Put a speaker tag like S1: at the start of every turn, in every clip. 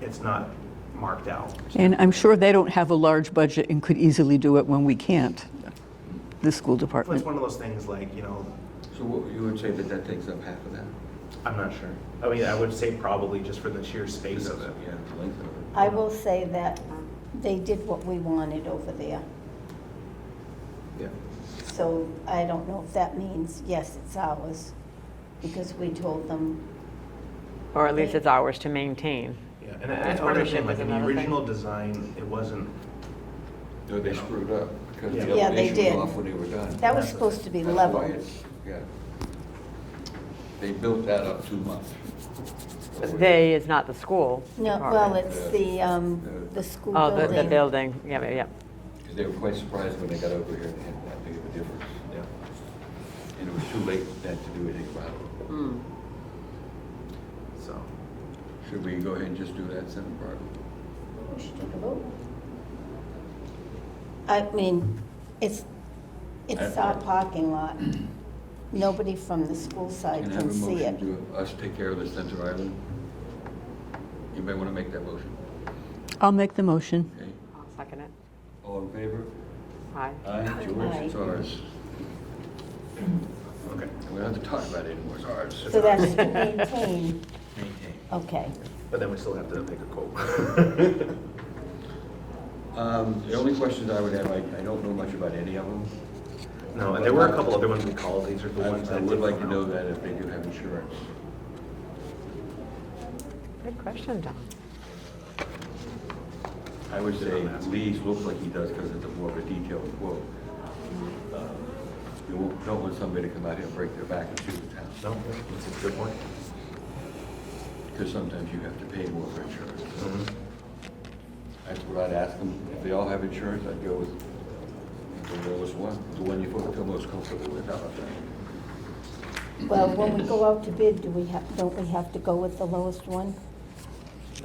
S1: it's not marked out.
S2: And I'm sure they don't have a large budget and could easily do it when we can't, the school
S1: But It's
S3: Mm.
S2: department.
S1: one of those things like, you know,
S4: So what- you would say that that takes up half of that?
S1: I'm not sure. I mean, I would say probably just for the sheer space
S4: Because
S1: of it.
S4: Yeah, the length of it.
S5: I will say that they did what we wanted over there.
S4: Yeah.
S5: So I don't know if that means, yes, it's ours, because we told them,
S3: Or at least it's ours to maintain.
S1: Yeah, and I- I
S3: That's
S1: understand,
S3: partnership
S1: like
S3: is
S1: in the
S3: another thing.
S1: original design, it wasn't,
S4: No, they screwed up because
S1: Yeah.
S4: the
S1: Yeah,
S5: they
S4: elevation
S5: did.
S4: was off when they were done.
S5: that was
S1: That's-
S5: supposed to be
S4: That's why
S5: level.
S4: it's- Yeah. They built that up too much.
S3: They is not the school.
S5: No, well,
S3: department.
S5: it's the, um, the school
S3: Oh, the, the
S5: building.
S3: building, yeah, yeah, yeah.
S4: They were quite surprised when they got over here and had that big of a difference.
S1: yeah.
S4: And it was too late for that to do anything about it.
S5: Hmm.
S1: So,
S4: Should we go ahead and just do that, Senator Barbara?
S5: We should take a vote. I mean, it's, it's our parking lot. Nobody from the school side
S4: And have a
S5: can see
S4: motion
S5: it.
S4: to us take care of the Center Island? Anybody want to make that motion?
S2: I'll make the motion.
S4: Okay.
S3: I'll Second it.
S4: All in favor?
S3: Aye.
S4: Aye, George, it's ours.
S1: okay.
S4: We don't have to talk about it anymore, it's ours.
S5: So that's to maintain,
S4: Maintain.
S5: okay.
S1: But then we still have to pick a quote.
S4: Um, The only questions I would have, I I don't know much about any of them.
S1: No, and there were a couple other ones we called, these are the ones
S4: I I
S1: that.
S4: would
S1: did
S4: like to
S1: come
S4: know
S1: out.
S4: that if they do have insurance.
S3: Good question, Don.
S4: I would say Lee's looks like he does because it's a more of a detailed quote.
S5: Mm-hmm.
S4: Uh, You won't- don't want somebody to come out here and break their back and sue the town.
S1: No, that's a good point.
S4: Because sometimes you have to pay more for insurance. That's what I'd ask them. If they all have insurance, I'd go with the lowest one, the one you feel feel most comfortable with. How about that?
S5: Well, when we go out to bid, do we have, don't we have to go with the lowest one?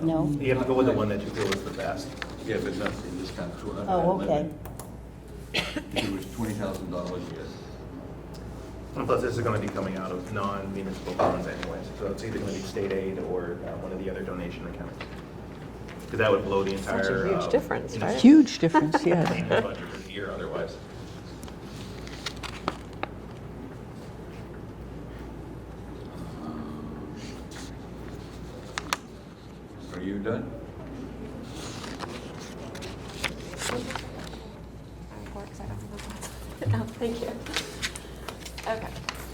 S5: No?
S1: You have to go with the one that you feel is the best.
S4: Yeah, but not in this kind of two hundred.
S5: Oh, okay.
S4: If it was twenty thousand dollars, yes.
S1: And plus, this is gonna be coming out of non-municipal funds anyways, so it's either gonna be state aid or uh, one of the other donation accounts. Because that would blow the
S3: a
S1: entire.
S3: huge
S1: uh,
S3: difference,
S1: municipal
S3: right?
S2: Huge difference, yeah.
S1: maintenance budget for the year otherwise.
S4: Are you done?
S6: report, 'cause I don't have a- No, thank you. Okay.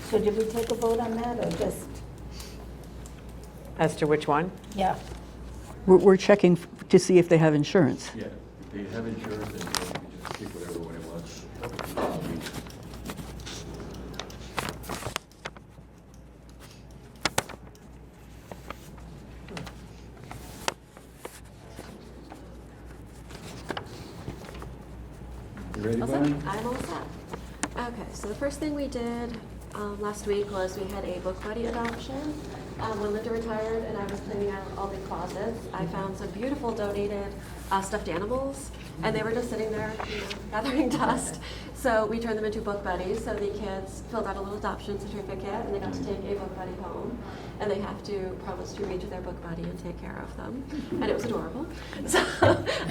S5: So did we take a vote on that, or just,
S3: As to which one?
S5: yeah?
S2: We're, we're checking f- to see if they have insurance.
S4: Yeah. If they have insurance, then you just pick whatever one it was. You ready,
S6: All set?
S4: Bonnie?
S6: I'm all set. Okay, so the first thing we did um, last week was we had a book buddy adoption. Um, When Linda retired and I was cleaning out all the closets, I found some beautiful donated uh, stuffed animals, and they were just sitting there, you know, gathering dust. So we turned them into book buddies, so the kids filled out a little adoption certificate, and they got to take a book buddy home, and they have to promise to read to their book buddy and take care of them, and it was adorable. So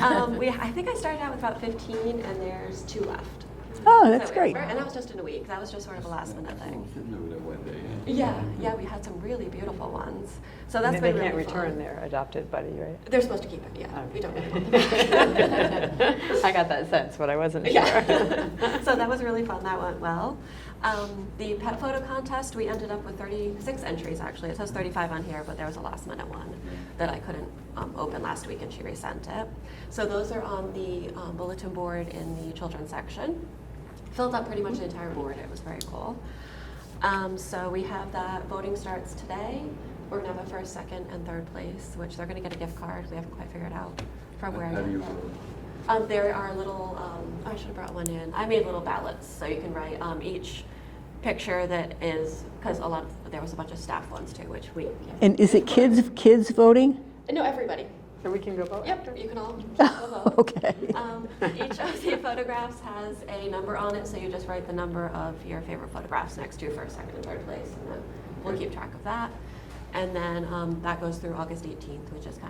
S6: um, we, I think I started out with about 15, and there's two left.
S2: Oh, that's
S6: So,
S2: great.
S6: And that was just in a week. That was just sort of a last minute thing.
S4: Sitting over there one day, yeah.
S6: Yeah, yeah, we had some really beautiful ones. So that's
S3: They they
S6: been
S3: can't
S6: really
S3: return
S6: fun.
S3: their adopted buddy, right?
S6: They're supposed to keep it, yeah. We don't really want them back.
S3: I got that sense, but I wasn't sure.
S6: Yeah. so that was really fun. That went well. Um, the pet photo contest, we ended up with 36 entries actually. It says 35 on here, but there was a last minute one that I couldn't um, open last week and she resent it. So those are on the um, bulletin board in the children's section. Filled up pretty much the entire board. It was very cool. Um, so we have that. Voting starts today. We're going to have a first, second, and third place, which they're going to get a gift card. We haven't quite figured out from where
S4: How do
S6: yet.
S4: you,
S6: Um, there are little, um, I should have brought one in. I made little ballots, so you can write um, each picture that is, because a lot, of, there was a bunch of staff ones too, which we. can't-
S2: And is it kids, kids voting?
S6: No, everybody.
S3: So we can go vote?
S6: Yep, you can all. go vote.
S2: Oh, Okay.
S6: Um, each of the photographs has a number on it, so you just write the number of your favorite photographs next to first, second, and third place, and then we'll keep track of that. And then um, that goes through August 18th, which is kind